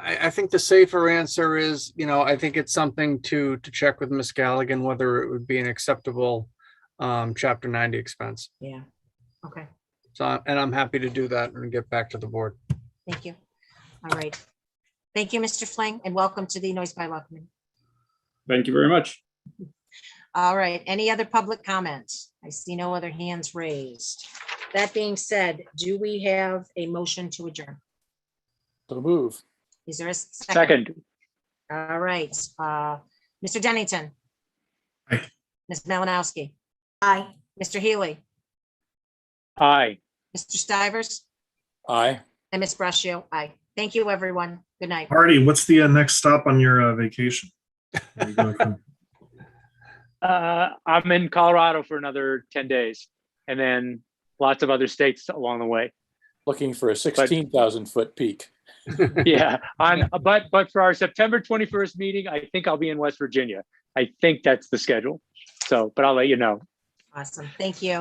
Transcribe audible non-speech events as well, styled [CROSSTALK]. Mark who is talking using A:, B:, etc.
A: I, I think the safer answer is, you know, I think it's something to, to check with Ms. Galligan, whether it would be an acceptable um, chapter ninety expense.
B: Yeah. Okay,
A: So, I- and I'm happy to do that and get back to the board.
B: thank you. All right. Thank you, Mr. Fling, and welcome to the Noise Bylaw Committee.
C: Thank you very much.
B: All right, any other public comments? I see no other hands raised. That being said, do we have a motion to adjourn?
D: So move.
B: Is there a second?
C: Second,
B: All right, uh, Mr. Dennington.
E: Aye.
B: Ms. Malinowski,
F: Aye.
B: Mr. Healy,
C: aye.
B: Mr. Stivers,
D: Aye.
B: and Ms. Brascio. Aye. Thank you, everyone. Good night.
E: Artie, what's the uh, next stop on your uh, vacation? Where you going from?
C: Uh, I'm in Colorado for another ten days and then lots of other states along the [LAUGHS] way.
D: Looking for a sixteen thousand foot peak.
C: Yeah, on, but, but for our September twenty-first meeting, I think I'll be in West Virginia. I think that's the schedule. So, but I'll let you know.
B: Awesome. Thank you.